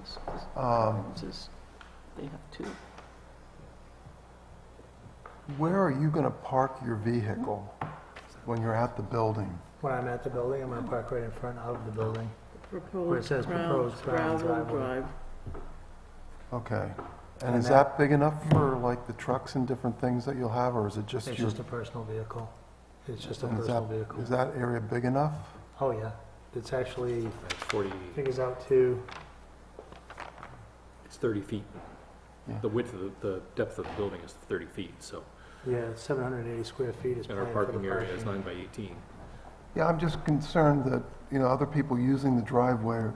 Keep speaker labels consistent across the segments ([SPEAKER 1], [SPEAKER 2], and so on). [SPEAKER 1] this,
[SPEAKER 2] Um,
[SPEAKER 1] this is, they have two.
[SPEAKER 2] Where are you going to park your vehicle when you're at the building?
[SPEAKER 3] When I'm at the building, I'm gonna park right in front of the building. Where it
[SPEAKER 1] Proposed
[SPEAKER 3] says
[SPEAKER 1] ground,
[SPEAKER 3] proposed ground
[SPEAKER 1] gravel
[SPEAKER 3] driveway.
[SPEAKER 1] drive.
[SPEAKER 2] Okay. And
[SPEAKER 3] And
[SPEAKER 2] is that big enough for like the trucks and different things that you'll have, or is it just
[SPEAKER 3] It's
[SPEAKER 2] your?
[SPEAKER 3] just a personal vehicle. It's just a
[SPEAKER 2] and is
[SPEAKER 3] personal
[SPEAKER 2] that-
[SPEAKER 3] vehicle.
[SPEAKER 2] Is that area big enough?
[SPEAKER 3] Oh, yeah. It's actually,
[SPEAKER 4] It's 40,
[SPEAKER 3] I think it's out to,
[SPEAKER 4] it's 30 feet.
[SPEAKER 2] Yeah.
[SPEAKER 4] The width of, the the depth of the building is 30 feet, so,
[SPEAKER 3] yeah, it's 780 square feet is
[SPEAKER 4] and
[SPEAKER 3] planned
[SPEAKER 4] our
[SPEAKER 3] for the
[SPEAKER 4] parking area is
[SPEAKER 3] parking.
[SPEAKER 4] 9 by 18.
[SPEAKER 2] Yeah, I'm just concerned that, you know, other people using the driveway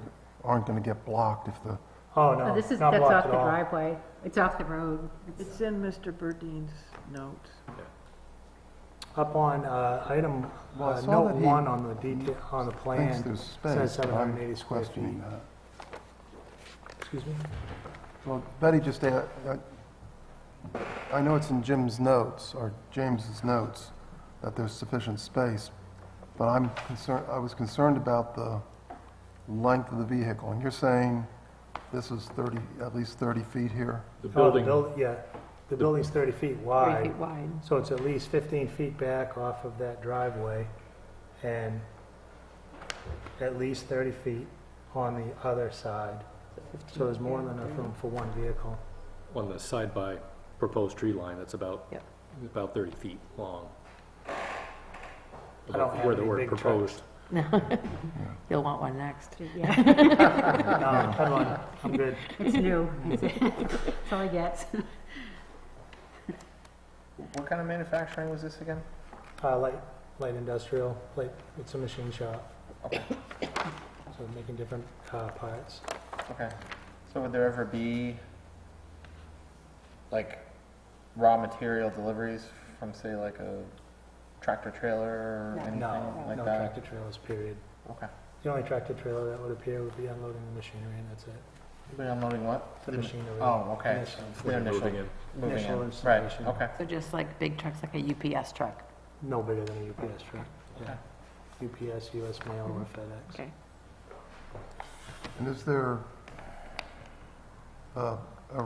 [SPEAKER 2] aren't going to get blocked if the,
[SPEAKER 3] Oh,
[SPEAKER 5] Oh,
[SPEAKER 3] no,
[SPEAKER 5] This is,
[SPEAKER 3] not
[SPEAKER 5] that's off
[SPEAKER 3] blocked
[SPEAKER 5] the
[SPEAKER 3] at all.
[SPEAKER 5] driveway, it's off the road. It's-
[SPEAKER 1] It's in Mr. Burdine's note.
[SPEAKER 3] Up on, uh, item,
[SPEAKER 2] Well, I
[SPEAKER 3] uh,
[SPEAKER 2] saw
[SPEAKER 3] note
[SPEAKER 2] that he
[SPEAKER 3] one on the detail, on the
[SPEAKER 2] thinks
[SPEAKER 3] plan,
[SPEAKER 2] there's space. but I'm
[SPEAKER 3] 780 square
[SPEAKER 2] questioning
[SPEAKER 3] feet.
[SPEAKER 2] that.
[SPEAKER 3] excuse me?
[SPEAKER 2] Well, Betty just, a- I- I know it's in Jim's notes, or James's notes, that there's sufficient space, but I'm concerned, I was concerned about the length of the vehicle, and you're saying this is 30, at least 30 feet here?
[SPEAKER 4] The
[SPEAKER 3] Oh, the
[SPEAKER 4] building,
[SPEAKER 3] buil- Yeah, the building's 30 feet
[SPEAKER 5] Three
[SPEAKER 3] wide,
[SPEAKER 5] feet wide.
[SPEAKER 3] so it's at least 15 feet back off of that driveway and at least 30 feet on the other side. So there's more than enough room for one vehicle.
[SPEAKER 4] on the side by proposed tree line, that's about,
[SPEAKER 1] Yep.
[SPEAKER 4] about 30 feet long.
[SPEAKER 3] I don't have
[SPEAKER 4] Where the
[SPEAKER 3] any
[SPEAKER 4] word
[SPEAKER 3] big trucks.
[SPEAKER 4] proposed,
[SPEAKER 6] You'll want one next.
[SPEAKER 5] Yeah,
[SPEAKER 7] Ah.
[SPEAKER 3] No, I'm Uh, on, I'm good.
[SPEAKER 5] it's new. That's all I get.
[SPEAKER 7] What kind of manufacturing was this again?
[SPEAKER 3] Uh, light, light industrial, light, it's a machine shop. So making different, uh, parts.
[SPEAKER 7] Okay. So would there ever be like raw material deliveries from say like a tractor trailer or
[SPEAKER 6] No.
[SPEAKER 7] anything
[SPEAKER 3] No,
[SPEAKER 7] like
[SPEAKER 3] no
[SPEAKER 7] that?
[SPEAKER 3] tractor trailers, period.
[SPEAKER 7] Okay.
[SPEAKER 3] The only tractor trailer that would appear would be unloading the machinery and that's it.
[SPEAKER 7] They're unloading what?
[SPEAKER 3] The machinery.
[SPEAKER 7] Oh, okay.
[SPEAKER 3] Initial.
[SPEAKER 4] when
[SPEAKER 7] Their
[SPEAKER 4] you're
[SPEAKER 7] initial-
[SPEAKER 4] moving in.
[SPEAKER 7] Moving
[SPEAKER 3] Initial
[SPEAKER 7] in.
[SPEAKER 3] installation.
[SPEAKER 7] Right. Okay.
[SPEAKER 6] So just like big trucks, like a UPS truck.
[SPEAKER 3] No bigger than a UPS truck, yeah. UPS, US Mail, or FedEx.
[SPEAKER 6] Okay.
[SPEAKER 2] And is there uh, a uh,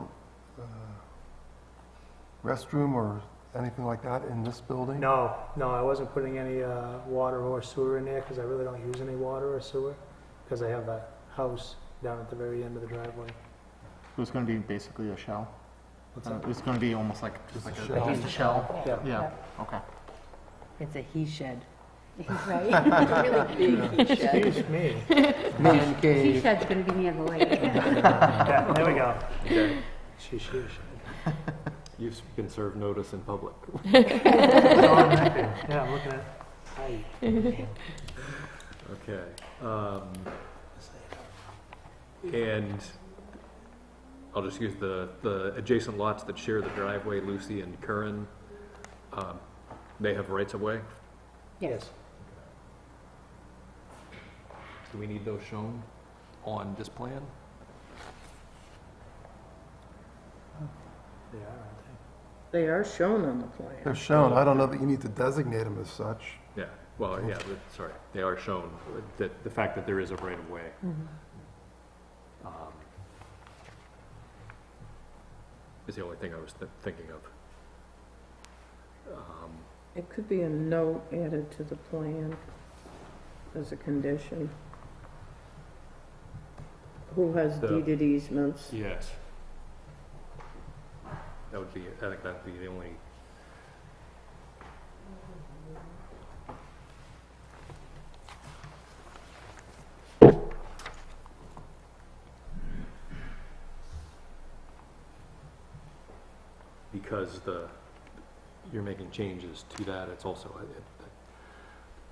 [SPEAKER 2] restroom or anything like that in this building?
[SPEAKER 3] No, no, I wasn't putting any uh, water or sewer in there because I really don't use any water or sewer because I have a house down at the very end of the driveway.
[SPEAKER 7] So it's going to be basically a shell.
[SPEAKER 3] What's
[SPEAKER 2] Oh.
[SPEAKER 3] that?
[SPEAKER 7] It's going to be almost like
[SPEAKER 2] Just like a a- shell.
[SPEAKER 6] just a shell.
[SPEAKER 3] Yeah.
[SPEAKER 7] Yeah. Okay.
[SPEAKER 6] It's a he shed.
[SPEAKER 5] Right?
[SPEAKER 3] Excuse me.
[SPEAKER 7] Man
[SPEAKER 5] She shed's gonna be near the lake.
[SPEAKER 3] Yeah, there we go. She, she, she.
[SPEAKER 4] You've been served notice in public.
[SPEAKER 3] Yeah, I'm looking at, hi.
[SPEAKER 4] Okay. um, And I'll just use the, the adjacent lots that share the driveway, Lucy and Curran, um, they have rights of way.
[SPEAKER 3] Yes.
[SPEAKER 4] Do we need those shown on this plan?
[SPEAKER 3] They are, aren't
[SPEAKER 1] They are shown on the
[SPEAKER 2] They're
[SPEAKER 1] plan.
[SPEAKER 2] shown, I don't know that you need to designate them as such.
[SPEAKER 4] Yeah, well, yeah, the- sorry, they are shown, that, the fact that there is a right of way.
[SPEAKER 1] Mm-hmm.
[SPEAKER 4] um, Is the only thing I was thi- thinking of. Um,
[SPEAKER 1] It could be a note added to the plan as a condition. Who has
[SPEAKER 4] The-
[SPEAKER 1] deeded easements?
[SPEAKER 4] Yes. That would be, I think that'd be the only. Because the, you're making changes to that, it's also, I- it-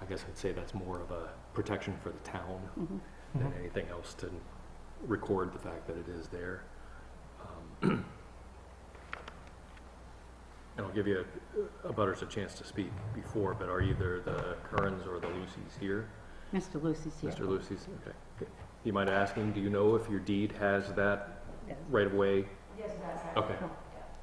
[SPEAKER 4] I guess I'd say that's more of a protection for the town
[SPEAKER 5] Mhm.
[SPEAKER 4] than anything else to record the fact that it is there. Um, And I'll give you a butters a chance to speak before, but are either the Currens or the Lucys here?
[SPEAKER 5] Mr. Lucy's here.
[SPEAKER 4] Mr. Lucy's, okay. Do You mind asking, do you know if your deed has that
[SPEAKER 6] Yes.
[SPEAKER 4] right of way?
[SPEAKER 8] Yes, it does. have-
[SPEAKER 4] Okay,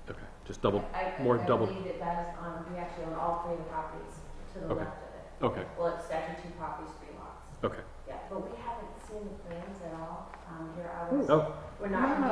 [SPEAKER 4] okay, just double,
[SPEAKER 8] I- I-
[SPEAKER 4] more
[SPEAKER 8] I
[SPEAKER 4] double,
[SPEAKER 8] believe it does, um, we actually own all three of the properties to the
[SPEAKER 4] Okay.
[SPEAKER 8] left of it.
[SPEAKER 4] okay,
[SPEAKER 8] Well, it's actually two properties, three lots.
[SPEAKER 4] okay.
[SPEAKER 8] Yeah, but we haven't seen the plans at all. Um, here I was
[SPEAKER 4] Oh,
[SPEAKER 5] We're not.